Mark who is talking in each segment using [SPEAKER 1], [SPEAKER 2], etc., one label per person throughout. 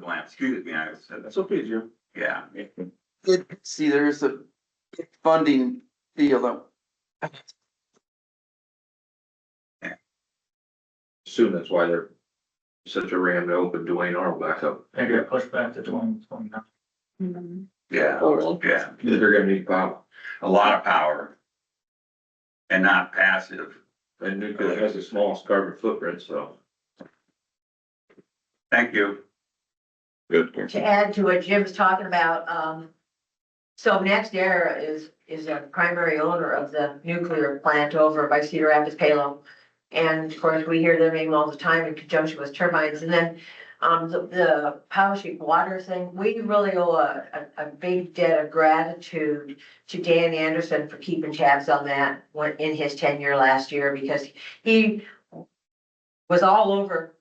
[SPEAKER 1] plan, excuse me, I said, that.
[SPEAKER 2] That's okay, Jim.
[SPEAKER 1] yeah.
[SPEAKER 3] It, see, there's a funding deal that
[SPEAKER 2] Assume that's why they're such a ram to open Dwayne Arnold back up.
[SPEAKER 4] They're gonna push back to twenty twenty-nine.
[SPEAKER 1] Yeah, yeah,
[SPEAKER 2] They're gonna need pop
[SPEAKER 1] a lot of power. And not passive.
[SPEAKER 2] and nuclear has the smallest carbon footprint, so.
[SPEAKER 1] Thank you.
[SPEAKER 5] To add to what Jim's talking about, um, so Next Era is, is a primary owner of the nuclear plant over by Cedar Rapids Palo. And of course, we hear their name all the time in conjunction with turbines. And then, um, the, the power sheet water thing, we really owe a, a, a big debt of gratitude to Dan Anderson for keeping tabs on that when, in his tenure last year, because he was all over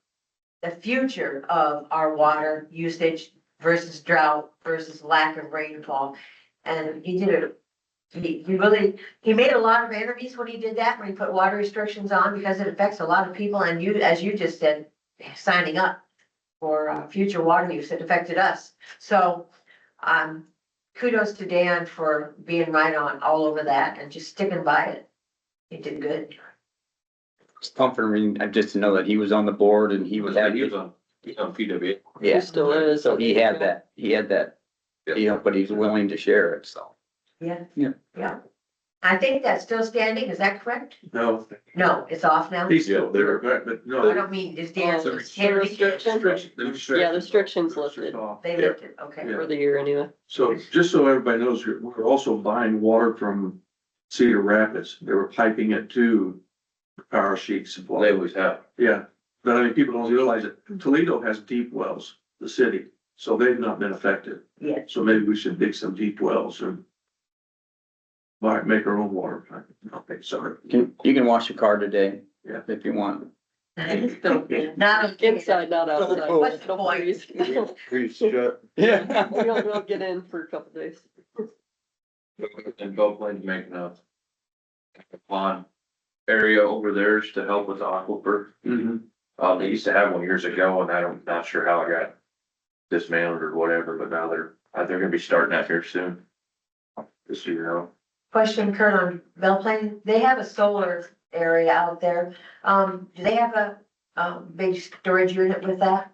[SPEAKER 5] the future of our water usage versus drought versus lack of rainfall. And he did it, he, he really, he made a lot of enemies when he did that, when he put water restrictions on, because it affects a lot of people, and you, as you just said, signing up for, uh, future water use, it affected us. So, um, kudos to Dan for being right on all over that and just sticking by it. He did good.
[SPEAKER 6] It's comforting just to know that he was on the board and he
[SPEAKER 2] He was,
[SPEAKER 6] was
[SPEAKER 2] he
[SPEAKER 6] happy.
[SPEAKER 2] was on, he's on PWA.
[SPEAKER 6] Yeah,
[SPEAKER 7] Still is.
[SPEAKER 6] so he had that, he had that, you know, but he's willing to share it, so.
[SPEAKER 5] Yeah.
[SPEAKER 6] Yeah.
[SPEAKER 5] Yeah. I think that's still standing, is that correct?
[SPEAKER 2] No,
[SPEAKER 5] No, it's off now?
[SPEAKER 2] he's still there, right, but
[SPEAKER 5] I
[SPEAKER 2] no.
[SPEAKER 5] don't mean, is Dan,
[SPEAKER 2] The
[SPEAKER 5] is Henry,
[SPEAKER 2] restriction- the
[SPEAKER 7] Yeah, the restrictions lifted.
[SPEAKER 5] they lived it, okay.
[SPEAKER 7] for the year anyway.
[SPEAKER 2] So just so everybody knows, we're- we're also buying water from Cedar Rapids. They were piping it to our sheet supply. They always have. Yeah, but I mean, people don't realize it. Toledo has deep wells, the city, so they've not been affected.
[SPEAKER 5] Yeah.
[SPEAKER 2] So maybe we should dig some deep wells and buy, make our own water. plant. Okay, sorry.
[SPEAKER 6] Can, you can wash your car today.
[SPEAKER 2] Yeah.
[SPEAKER 6] If you want.
[SPEAKER 5] Not on
[SPEAKER 7] Inside, not outside.
[SPEAKER 6] Cool.
[SPEAKER 5] What's the
[SPEAKER 7] Don't
[SPEAKER 5] point?
[SPEAKER 7] freeze. We
[SPEAKER 6] Yeah.
[SPEAKER 7] don't, we'll get in for a couple days.
[SPEAKER 2] And Gulf Lane's making a pond area over theirs to help with the aquifer. Uh, they used to have one years ago and I don't, not sure how it got dismantled or whatever, but now they're, uh, they're gonna be starting that here soon. Just so you know.
[SPEAKER 5] Question Kurt on Bell Plain, they have a solar area out there, um, do they have a, um, big storage unit with that?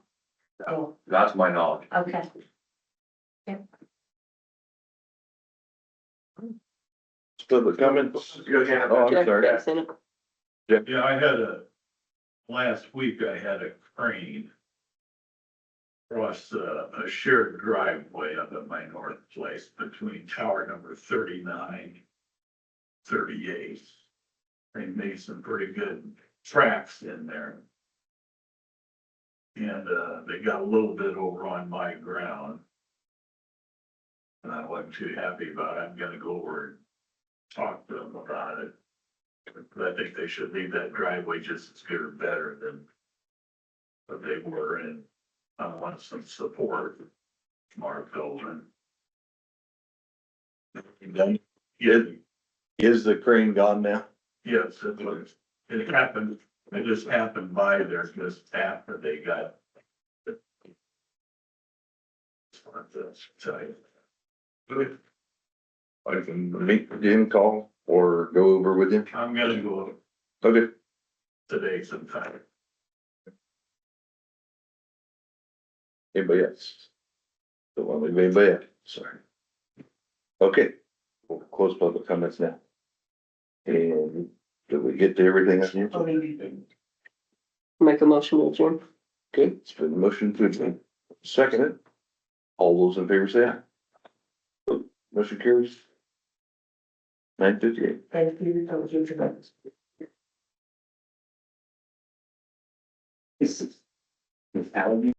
[SPEAKER 5] Oh,
[SPEAKER 2] That's my knowledge.
[SPEAKER 5] okay.
[SPEAKER 2] Public comments? Go ahead. Oh,
[SPEAKER 7] Jack Jack's in it.
[SPEAKER 8] Yeah, I had a, last week I had a crane across a, a shared driveway up at my north place between tower number 39, 38. They made some pretty good tracks in there. And, uh, they got a little bit over on my ground. And I wasn't too happy about it. I'm gonna go over and talk to them about it. But I think they should leave that driveway just as good or better than what they were and I want some support from our building. Yeah,
[SPEAKER 9] Is the crane gone now?
[SPEAKER 8] yes, it was, it happened, it just happened by there just after they got. Just wanted to tell you.
[SPEAKER 9] I can meet with him, call, or go over with him?
[SPEAKER 8] I'm gonna go
[SPEAKER 9] Okay.
[SPEAKER 8] today sometime.
[SPEAKER 9] Anybody else? Don't want to leave anybody out, sorry. Okay, we'll close public comments now. And did we get to everything I need?
[SPEAKER 7] Make a motion, will adjourn.
[SPEAKER 9] Okay, it's been motion to adjourn. Second it. All those in favor say aye. Motion carries. Nine fifty-eight.
[SPEAKER 5] Thank you, that was your tremendous.